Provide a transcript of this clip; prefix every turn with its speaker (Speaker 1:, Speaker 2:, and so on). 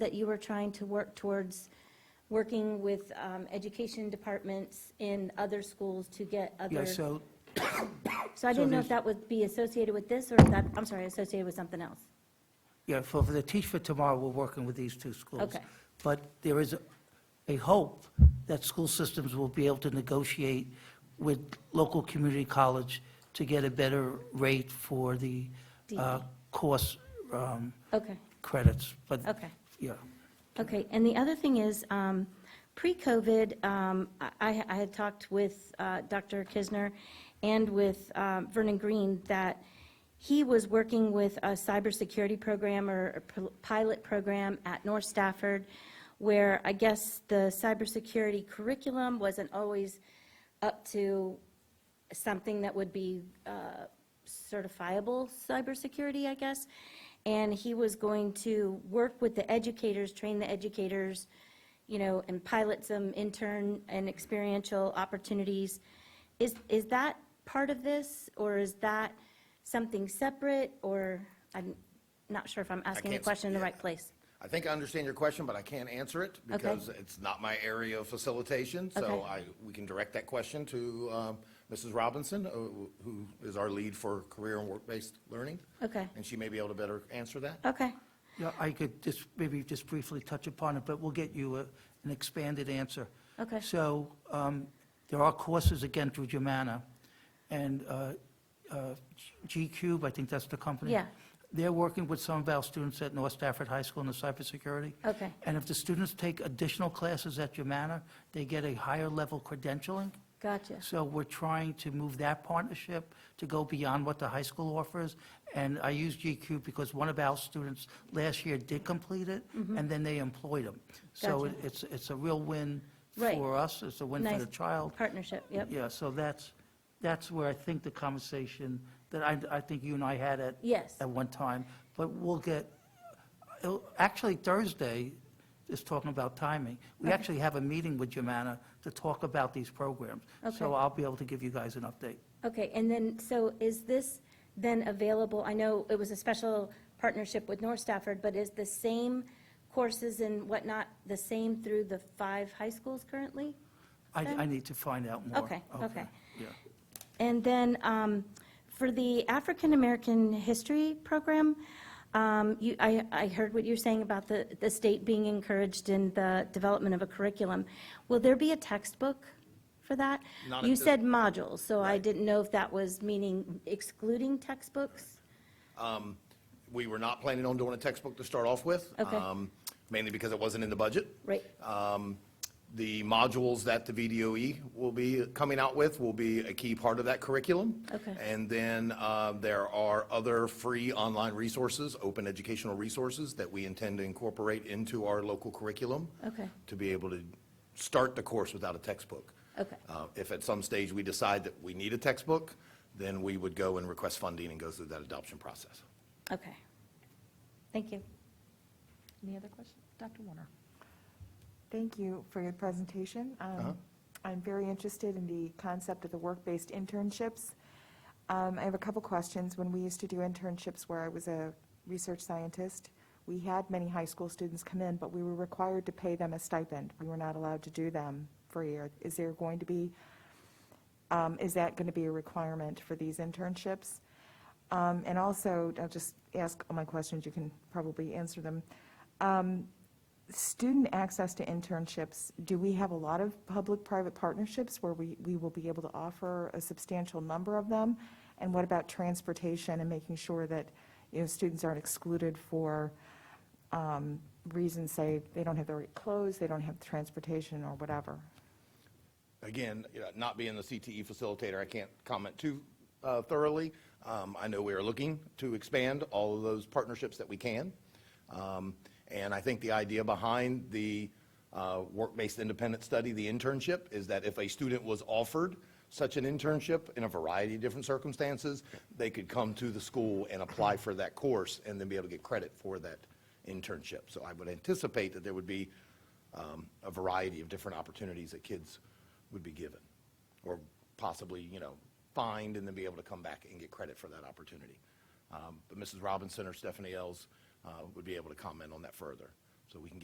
Speaker 1: that you were trying to work towards, working with um, education departments in other schools to get
Speaker 2: Yeah,
Speaker 1: other, so
Speaker 2: so,
Speaker 1: I didn't know
Speaker 2: there's-
Speaker 1: if that would be associated with this, or if that, I'm sorry, associated with something else.
Speaker 2: yeah, for for the Teach for Tomorrow, we're working with these two schools.
Speaker 1: Okay.
Speaker 2: But there is a- a hope that school systems will be able to negotiate with local community college to get a better rate for the uh,
Speaker 1: DE.
Speaker 2: course um,
Speaker 1: Okay,
Speaker 2: credits, but.
Speaker 1: Okay.
Speaker 2: Yeah,
Speaker 1: okay, and the other thing is, um, pre-COVID, um, I, I had talked with uh, Dr. Kisner and with um, Vernon Green that he was working with a cybersecurity program or a pil- pilot program at North Stafford, where I guess the cybersecurity curriculum wasn't always up to something that would be uh, certifiable cybersecurity, I guess. And he was going to work with the educators, train the educators, you know, and pilot some intern and experiential opportunities. Is, is that part of this, or is that something separate, or, I'm not sure if I'm asking the
Speaker 3: can't s-
Speaker 1: question in the
Speaker 3: yeah.
Speaker 1: right place?
Speaker 3: I think I understand your question, but I can't answer it because it's not my area of facilitation. So
Speaker 1: Okay.
Speaker 3: I, we can direct that question to um, Mrs. Robinson, uh, who is our lead for career and work-based learning.
Speaker 1: Okay.
Speaker 3: And she may be able to better answer that.
Speaker 1: Okay,
Speaker 2: yeah, I could just, maybe just briefly touch upon it, but we'll get you a- an expanded answer.
Speaker 1: Okay.
Speaker 2: So um, there are courses, again, through Germana, and uh, uh, G Cube, I think that's the company.
Speaker 1: Yeah.
Speaker 2: They're working with some of our students at North Stafford High School in the cybersecurity.
Speaker 1: Okay.
Speaker 2: And if the students take additional classes at Germana, they get a higher level credentialing.
Speaker 1: gotcha.
Speaker 2: So we're trying to move that partnership to go beyond what the high school offers. And I use GQ because one of our students last year did complete it, and then they employed him. So
Speaker 1: Mm-hmm. Gotcha.
Speaker 2: it- it's, it's a real win
Speaker 1: Right.
Speaker 2: for us, it's a win for
Speaker 1: Nice
Speaker 2: the child.
Speaker 1: Partnership, yep.
Speaker 2: Yeah, so that's, that's where I think the conversation that I, I think you and I had at.
Speaker 1: Yes.
Speaker 2: At one time, but we'll get, it'll- actually Thursday is talking about timing. We actually have a meeting with Jemana to talk about these programs. So
Speaker 1: Okay.
Speaker 2: I'll be able to give you guys an update.
Speaker 1: Okay, and then, so is this then available, I know it was a special partnership with North Stafford, but is the same courses and whatnot the same through the five high schools currently?
Speaker 2: I,
Speaker 1: Okay.
Speaker 2: I need to find out more.
Speaker 1: Okay, okay.
Speaker 2: Yeah.
Speaker 1: And then um, for the African-American History Program, um, you, I, I heard what you're saying about the, the state being encouraged in the development of a curriculum. Will there be a textbook for that?
Speaker 3: Not at
Speaker 1: You
Speaker 3: this-
Speaker 1: said modules, so I
Speaker 3: Right.
Speaker 1: didn't know if that was meaning excluding textbooks?
Speaker 3: We were not planning on doing a textbook to start off with.
Speaker 1: Okay.
Speaker 3: um, Mainly because it wasn't in the budget.
Speaker 1: Right.
Speaker 3: Um, The modules that the VDOE E will be coming out with will be a key part of that curriculum.
Speaker 1: Okay.
Speaker 3: And then uh, there are other free online resources, open educational resources that we intend to incorporate into our local curriculum.
Speaker 1: Okay.
Speaker 3: To be able to start the course without a textbook.
Speaker 1: Okay.
Speaker 3: Uh, If at some stage we decide that we need a textbook, then we would go and request funding and go through that adoption process.
Speaker 1: Okay. Thank you.
Speaker 4: Any other questions? Dr. Warner?
Speaker 5: Thank you for your presentation. Um, I'm very interested in the concept of the work-based internships. Um, I have a couple questions. When we used to do internships where I was a research scientist, we had many high school students come in, but we were required to pay them a stipend. We were not allowed to do them for a year. Is there going to be, um, is that going to be a requirement for these internships? Um, And also, I'll just ask all my questions, you can probably answer them. Um, Student access to internships, do we have a lot of public-private partnerships where we, we will be able to offer a substantial number of them? And what about transportation and making sure that, you know, students aren't excluded for um, reasons, say, they don't have the right clothes, they don't have transportation or whatever?
Speaker 3: again, you know, not being the CTE facilitator, I can't comment too uh, thoroughly. Um, I know we are looking to expand all of those partnerships that we can. Um, And I think the idea behind the uh, work-based independent study, the internship, is that if a student was offered such an internship in a variety of different circumstances, they could come to the school and apply for that course and then be able to get credit for that internship. So I would anticipate that there would be um, a variety of different opportunities that kids would be given, or possibly, you know, fined and then be able to come back and get credit for that opportunity. Um, But Mrs. Robinson or Stephanie Ells uh, would be able to comment on that further. so we can get